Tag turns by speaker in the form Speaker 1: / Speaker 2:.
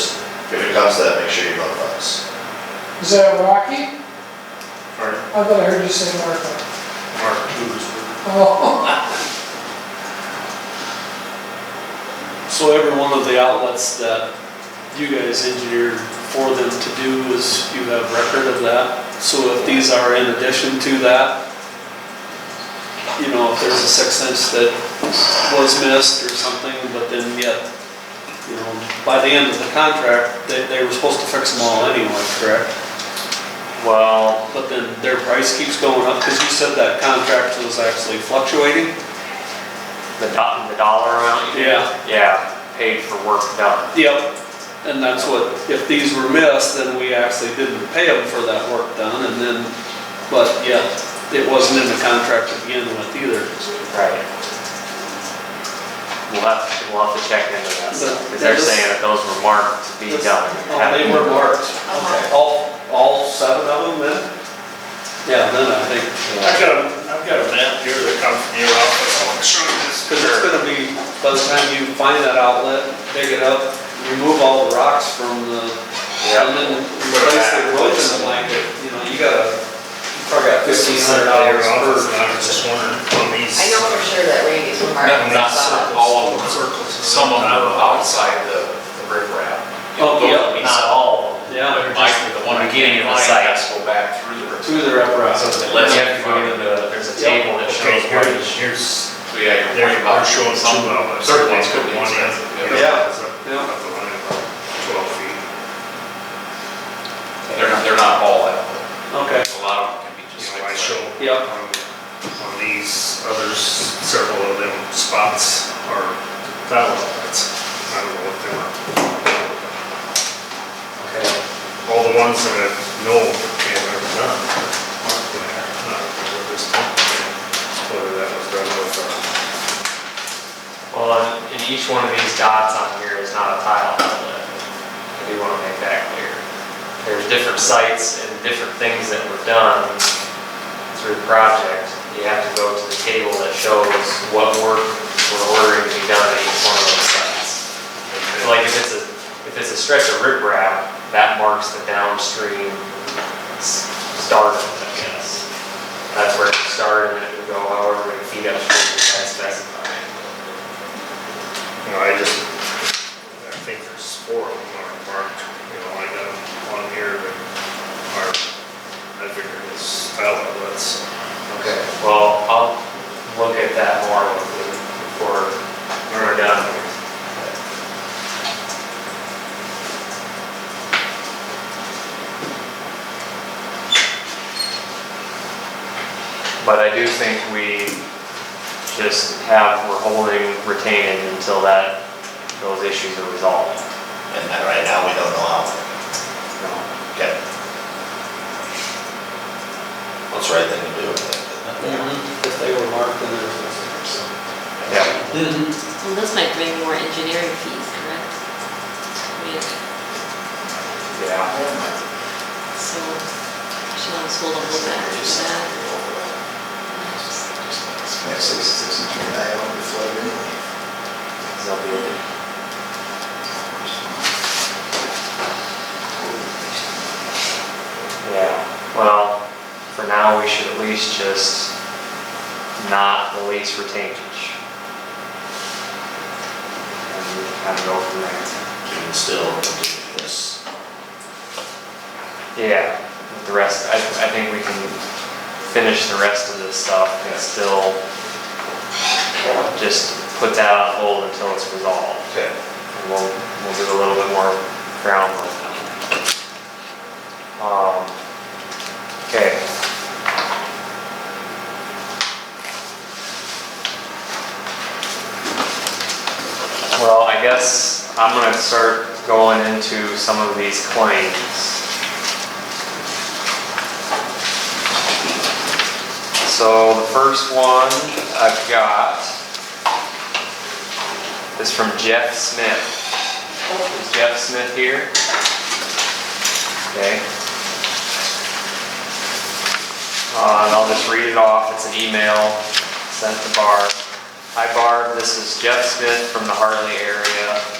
Speaker 1: comes to that, make sure you notify us.
Speaker 2: Is that Rocky?
Speaker 3: Mark,
Speaker 2: I thought I heard you say Marco.
Speaker 3: Mark Kluger's.
Speaker 2: Oh,
Speaker 4: So every one of the outlets that you guys engineered for them to do is, you have record of that? So if these are in addition to that, you know, if there's a six inch that was missed or something, but then yet, you know, by the end of the contract, they, they were supposed to fix them all anyway, correct?
Speaker 3: Well,
Speaker 4: But then their price keeps going up, because you said that contract was actually fluctuating?
Speaker 3: the do, the dollar amount? you mean?
Speaker 4: Yeah.
Speaker 3: Yeah, paid for work done.
Speaker 4: Yep, and that's what, if these were missed, then we actually didn't pay them for that work done, and then, but yeah, it wasn't in the contract to begin with either.
Speaker 3: Right. We'll have, to- we'll have to check into that, because they're
Speaker 4: That is-
Speaker 3: saying that those were marked to be done.
Speaker 4: Oh, they were marked. Okay. All, all seven of them then? Yeah, then I think,
Speaker 5: I've got, a- I've got a map here that comes from your office, I'll show you this.
Speaker 4: because it's gonna be, by the time you find that outlet, dig it up, remove all the rocks from the,
Speaker 3: Yep.
Speaker 4: and then replace the road in the blanket, you know, you gotta, you probably got
Speaker 5: This
Speaker 4: fifteen
Speaker 5: is
Speaker 4: hundred
Speaker 5: sent out of
Speaker 4: dollars per.
Speaker 5: your office, and I was just wondering on these.
Speaker 6: I know for sure that Randy's remark.
Speaker 7: No, not all of them,
Speaker 5: Circles.
Speaker 7: some of them are outside the, the riprap.
Speaker 4: Oh, yeah.
Speaker 7: Not all.
Speaker 4: Yeah.
Speaker 7: Mike, the one I'm getting in the
Speaker 3: Beginning of the
Speaker 7: site, has to go back through the riprap.
Speaker 4: Through the rep route.
Speaker 7: So it lets you
Speaker 3: You have to go
Speaker 7: find
Speaker 3: to the, there's a
Speaker 4: Yep.
Speaker 3: table that
Speaker 5: Okay,
Speaker 3: shows
Speaker 5: here,
Speaker 3: where
Speaker 5: here's,
Speaker 7: So yeah, you're
Speaker 5: they're
Speaker 7: worried
Speaker 5: they're
Speaker 7: about
Speaker 5: showing
Speaker 7: some,
Speaker 5: some of them.
Speaker 7: certain ones could be
Speaker 5: One is-
Speaker 7: expensive.
Speaker 5: is
Speaker 4: Yeah.
Speaker 5: up-
Speaker 4: Yeah.
Speaker 5: up the line about Twelve feet.
Speaker 7: they're not, they're not all out,
Speaker 4: Okay,
Speaker 7: a lot of them can be just
Speaker 5: You
Speaker 7: like.
Speaker 5: know, I
Speaker 7: that.
Speaker 5: show
Speaker 4: Yep.
Speaker 5: on, on these others, several of them spots are valid outlets. I don't know what they were.
Speaker 4: okay.
Speaker 5: All the ones that I know can are done. aren't there. Not for this time. Whether that was done with, uh,
Speaker 3: Well, and- and each one of these dots on here is not a tile outlet. I do want to make that clear. There's different sites and different things that were done through the project. You have to go to the table that shows what work we're ordering to be done at each one of those sites. So like if it's a, if it's a stretch of riprap, that marks the downstream s- start of it, I guess. That's where it started and it would go however many feet upstream as specified.
Speaker 5: you know, I just, I think there's four of them are marked, you know, I got one here that are, I figured it's valid, outlets.
Speaker 3: Okay, well, I'll look at that more with you before we're done. But I do think we just have, we're holding retaining until that, those issues are resolved.
Speaker 1: And and right now, we don't know how. Okay. What's the right thing to do?
Speaker 4: If they were marked, then there's.
Speaker 3: Yeah.
Speaker 8: Well, those might bring more engineering fees, correct? I mean,
Speaker 3: Yeah.
Speaker 8: so, she'll just hold a little bit after that. Just-
Speaker 1: Yeah, sixty-six inch I don't be flooded anyway.
Speaker 3: Yeah, well, for now, we should at least just not release retainage. And we can kind of go from there.
Speaker 1: You can still do this.
Speaker 3: Yeah, the rest, I, I think we can finish the rest of this stuff and still just put that on hold until it's resolved.
Speaker 1: Okay.
Speaker 3: And we'll, we'll do a little bit more groundwork on it. Um, okay. Well, I guess I'm gonna start going into some of these claims. So the first one I've got is from Jeff Smith. Is Jeff Smith here? Okay. Uh, and I'll just read it off, it's an email sent to Barb. Hi Barb, this is Jeff Smith from the Harley area.